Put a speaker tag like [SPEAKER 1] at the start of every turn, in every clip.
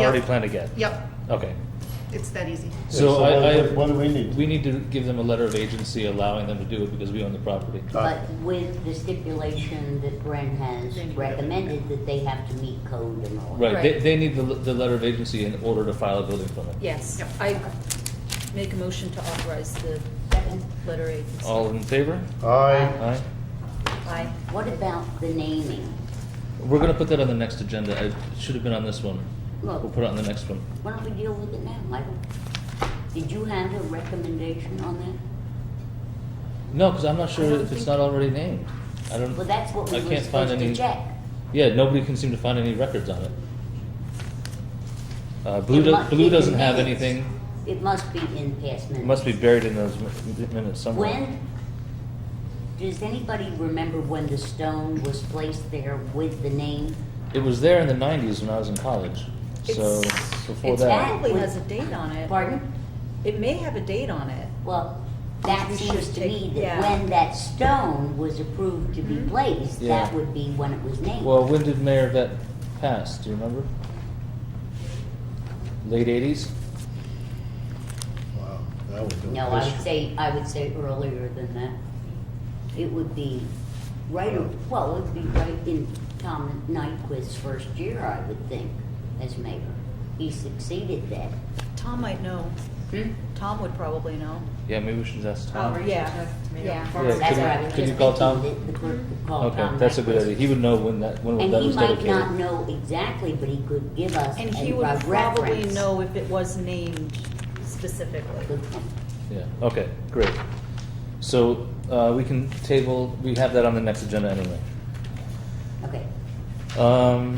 [SPEAKER 1] already
[SPEAKER 2] Yep.
[SPEAKER 1] planned ahead.
[SPEAKER 2] Yep,
[SPEAKER 1] Okay.
[SPEAKER 2] it's that easy.
[SPEAKER 1] So
[SPEAKER 3] what-
[SPEAKER 1] I, I,
[SPEAKER 3] What do we need?
[SPEAKER 1] we need to give them a letter of agency allowing them to do it because we own the property.
[SPEAKER 3] Uh,
[SPEAKER 4] But with the stipulation that Brent has recommended that they have to meet code and all.
[SPEAKER 1] Right, they,
[SPEAKER 5] Right.
[SPEAKER 1] they need the, the letter of agency in order to file a building permit.
[SPEAKER 5] Yes,
[SPEAKER 2] Yep.
[SPEAKER 5] I make a motion to authorize the letter agency.
[SPEAKER 1] All in favor?
[SPEAKER 3] Aye.
[SPEAKER 1] Aye.
[SPEAKER 5] Aye.
[SPEAKER 4] What about the naming?
[SPEAKER 1] We're gonna put that on the next agenda. It should have been on this one.
[SPEAKER 4] Look.
[SPEAKER 1] We'll put it on the next one.
[SPEAKER 4] Why don't we deal with it now, Michael? Did you have a recommendation on that?
[SPEAKER 1] No, because I'm not
[SPEAKER 5] I
[SPEAKER 1] sure
[SPEAKER 5] don't
[SPEAKER 1] if it's
[SPEAKER 5] think-
[SPEAKER 1] not already named. I don't.
[SPEAKER 4] Well, that's what
[SPEAKER 1] I
[SPEAKER 4] we were
[SPEAKER 1] can't find
[SPEAKER 4] supposed to
[SPEAKER 1] any-
[SPEAKER 4] check.
[SPEAKER 1] Yeah, nobody can seem to find any records on it. Uh, Blue,
[SPEAKER 4] It
[SPEAKER 1] do-
[SPEAKER 4] must be
[SPEAKER 1] Blue
[SPEAKER 4] in
[SPEAKER 1] doesn't have
[SPEAKER 4] minutes.
[SPEAKER 1] anything.
[SPEAKER 4] It must be in past
[SPEAKER 1] It
[SPEAKER 4] minutes.
[SPEAKER 1] must be buried in those mi- minutes somewhere.
[SPEAKER 4] When, does anybody remember when the stone was placed there with the name?
[SPEAKER 1] It was there in the '90s when I was in college. So
[SPEAKER 5] It's-
[SPEAKER 1] before
[SPEAKER 5] it's
[SPEAKER 1] that,
[SPEAKER 5] Probably has a date on it.
[SPEAKER 4] Pardon?
[SPEAKER 5] It may have a date on it.
[SPEAKER 4] Well, that
[SPEAKER 5] We
[SPEAKER 4] seems
[SPEAKER 5] should
[SPEAKER 4] to
[SPEAKER 5] take-
[SPEAKER 4] me that
[SPEAKER 5] yeah.
[SPEAKER 4] when that stone was approved to be
[SPEAKER 5] Mhm.
[SPEAKER 4] placed,
[SPEAKER 1] Yeah.
[SPEAKER 4] that would be when it was named.
[SPEAKER 1] well, when did Mayor Vet pass? Do you remember? Late '80s.
[SPEAKER 3] Wow, that was a
[SPEAKER 4] No, I would
[SPEAKER 3] push.
[SPEAKER 4] say, I would say earlier than that. It would be right, a- well, it would be right in Tom Nyquist's first year, I would think, as mayor. He succeeded that.
[SPEAKER 5] Tom might know.
[SPEAKER 4] Hmm?
[SPEAKER 5] Tom would probably know.
[SPEAKER 1] Yeah, maybe we should ask Tom.
[SPEAKER 4] Oh,
[SPEAKER 5] Or yeah, yeah.
[SPEAKER 1] Yeah,
[SPEAKER 4] That's
[SPEAKER 1] could
[SPEAKER 4] what
[SPEAKER 1] we-
[SPEAKER 4] I was
[SPEAKER 1] could
[SPEAKER 4] just
[SPEAKER 1] you call Tom?
[SPEAKER 4] thinking, that the clerk could call
[SPEAKER 1] okay,
[SPEAKER 4] Oh, Tom
[SPEAKER 1] that's a
[SPEAKER 4] Nyquist.
[SPEAKER 1] good idea. He would know when that when
[SPEAKER 4] And
[SPEAKER 1] that
[SPEAKER 4] he
[SPEAKER 1] was
[SPEAKER 4] might
[SPEAKER 1] dedicated.
[SPEAKER 4] not know exactly, but he could give us a
[SPEAKER 5] And
[SPEAKER 4] reference.
[SPEAKER 5] he would probably know if it was named specifically.
[SPEAKER 4] Good point.
[SPEAKER 1] Yeah, okay, great. So, uh, we can table, we have that on the next agenda anyway.
[SPEAKER 4] Okay,
[SPEAKER 1] Um,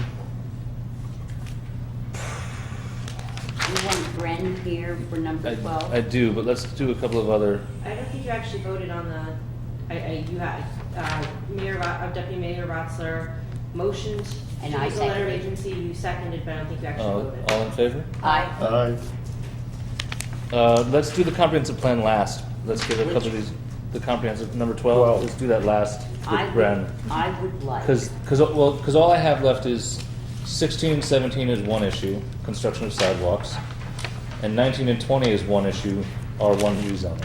[SPEAKER 4] you want Bren here for number
[SPEAKER 1] I,
[SPEAKER 4] twelve?
[SPEAKER 1] I do, but let's do a couple of other,
[SPEAKER 6] I don't think you actually voted on the, I, I, you had, uh, Mayor, Ro- uh, Deputy Mayor Rotzler motioned to
[SPEAKER 4] And I
[SPEAKER 6] use the letter of
[SPEAKER 4] seconded.
[SPEAKER 6] agency, you seconded, but I don't think you actually
[SPEAKER 1] uh,
[SPEAKER 6] voted.
[SPEAKER 1] all in favor?
[SPEAKER 4] Aye.
[SPEAKER 3] Aye.
[SPEAKER 1] Uh, let's do the comprehensive plan last. Let's get a couple of
[SPEAKER 4] Which?
[SPEAKER 1] these, the comprehensive, number
[SPEAKER 3] Twelve.
[SPEAKER 1] twelve, let's do that last
[SPEAKER 4] I
[SPEAKER 1] with
[SPEAKER 4] would-
[SPEAKER 1] Bren.
[SPEAKER 4] I would like.
[SPEAKER 1] Cause, 'cause, well, 'cause all I have left is sixteen, seventeen is one issue, construction of sidewalks. And nineteen and twenty is one issue, R one rezoning.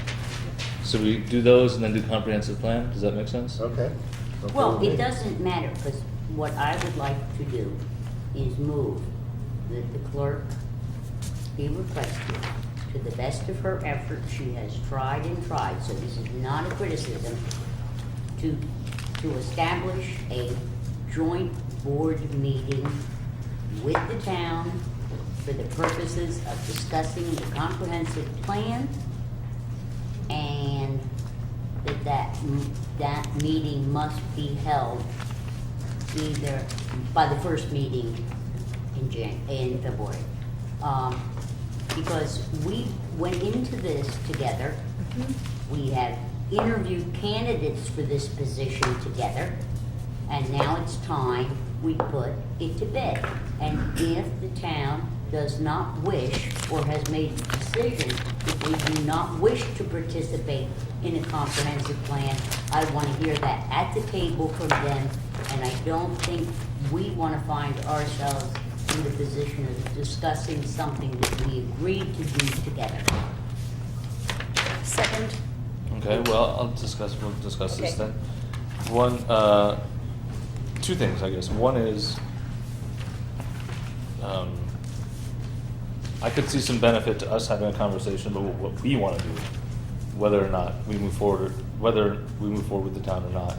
[SPEAKER 1] So we do those and then do comprehensive plan, does that make sense?
[SPEAKER 3] Okay. Okay
[SPEAKER 4] Well,
[SPEAKER 3] with
[SPEAKER 4] it
[SPEAKER 3] me.
[SPEAKER 4] doesn't matter, because what I would like to do is move that the clerk be requested, to the best of her effort, she has tried and tried, so this is not a criticism, to, to establish a joint board meeting with the town for the purposes of discussing the comprehensive plan and that that, m- that meeting must be held either by the first meeting in Jan, in February. Um, because we went into this together. We have interviewed candidates for this position together. And now it's time we put it to bed. And if the town does not wish or has made a decision that we do not wish to participate in a comprehensive plan, I want to hear that at the table from them. And I don't think we want to find ourselves in the position of discussing something that we agreed to do together.
[SPEAKER 5] Second,
[SPEAKER 1] Okay, well, I'll discuss, we'll discuss this
[SPEAKER 5] Okay.
[SPEAKER 1] then. One, uh, two things, I guess. One is, um, I could see some benefit to us having a conversation about what what we wanna do, whether or not we move forward, whether we move forward with the town or not.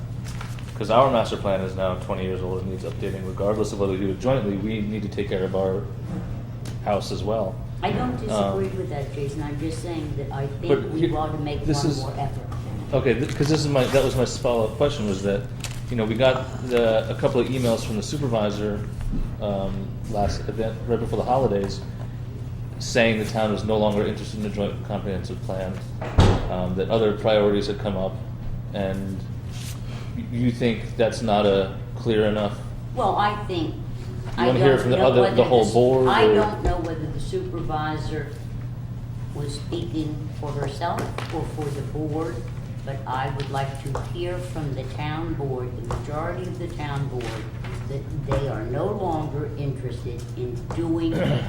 [SPEAKER 1] Cause our master plan is now twenty years old and needs updating regardless of whether we do it jointly, we need to take care of our house as well.
[SPEAKER 4] I don't disagree
[SPEAKER 1] Um,
[SPEAKER 4] with that, Jason, I'm just saying that I
[SPEAKER 1] But
[SPEAKER 4] think
[SPEAKER 1] here-
[SPEAKER 4] we ought to make
[SPEAKER 1] this
[SPEAKER 4] one
[SPEAKER 1] is-
[SPEAKER 4] more effort.
[SPEAKER 1] Okay, because this is my, that was my follow-up question, was that, you know, we got the, a couple of emails from the supervisor, um, last event, right before the holidays, saying the town was no longer interested in a joint comprehensive plan, um, that other priorities had come up, and y- you think that's not a clear enough,
[SPEAKER 4] Well, I think.
[SPEAKER 1] You
[SPEAKER 4] I
[SPEAKER 1] wanna hear
[SPEAKER 4] don't
[SPEAKER 1] from the
[SPEAKER 4] know
[SPEAKER 1] other-
[SPEAKER 4] whether
[SPEAKER 1] the whole
[SPEAKER 4] s-
[SPEAKER 1] board,
[SPEAKER 4] I
[SPEAKER 1] or-
[SPEAKER 4] don't know whether the supervisor was speaking for herself or for the board, but I would like to hear from the town board, the majority of the town board, that they are no longer interested in doing a